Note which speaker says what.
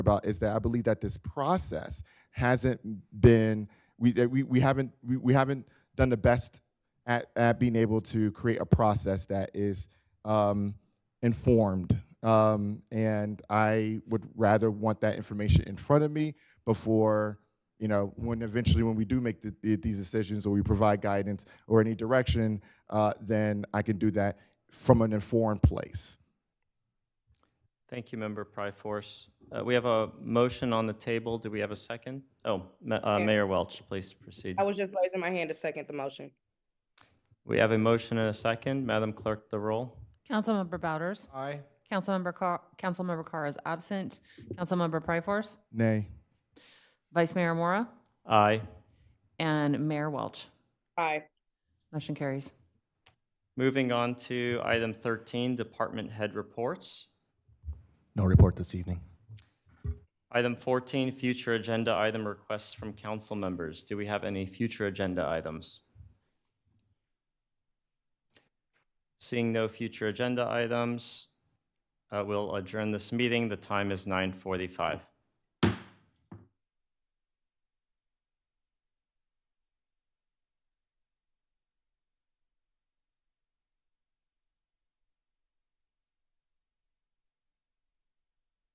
Speaker 1: about is that I believe that this process hasn't been we that we, we haven't we, we haven't done the best at, at being able to create a process that is um, informed. Um, and I would rather want that information in front of me before you know when eventually when we do make the, the, these decisions or we provide guidance or any direction, uh, then I can do that from an informed place.
Speaker 2: Thank you, Member Pryforce. Uh, We have a motion on the table. Do we have a second? Oh, Ma- uh,
Speaker 3: Second.
Speaker 2: Mayor Welch, please proceed.
Speaker 3: I was just raising my hand to second the motion.
Speaker 2: We have a motion and a second. Madam Clerk, the roll.
Speaker 4: Councilmember Bouders?
Speaker 1: Aye.
Speaker 4: Councilmember Carr, Councilmember Carr is absent. Councilmember Pryforce?
Speaker 1: Nay.
Speaker 4: Vice Mayor Mora?
Speaker 2: Aye.
Speaker 4: And Mayor Welch.
Speaker 3: Aye.
Speaker 4: Motion carries.
Speaker 2: Moving on to item 13, Department Head Reports.
Speaker 5: No report this evening.
Speaker 2: Item 14, Future Agenda Item Requests from Council Members. Do we have any future agenda items? Seeing no future agenda items, uh, we'll adjourn this meeting. The time is 9:45.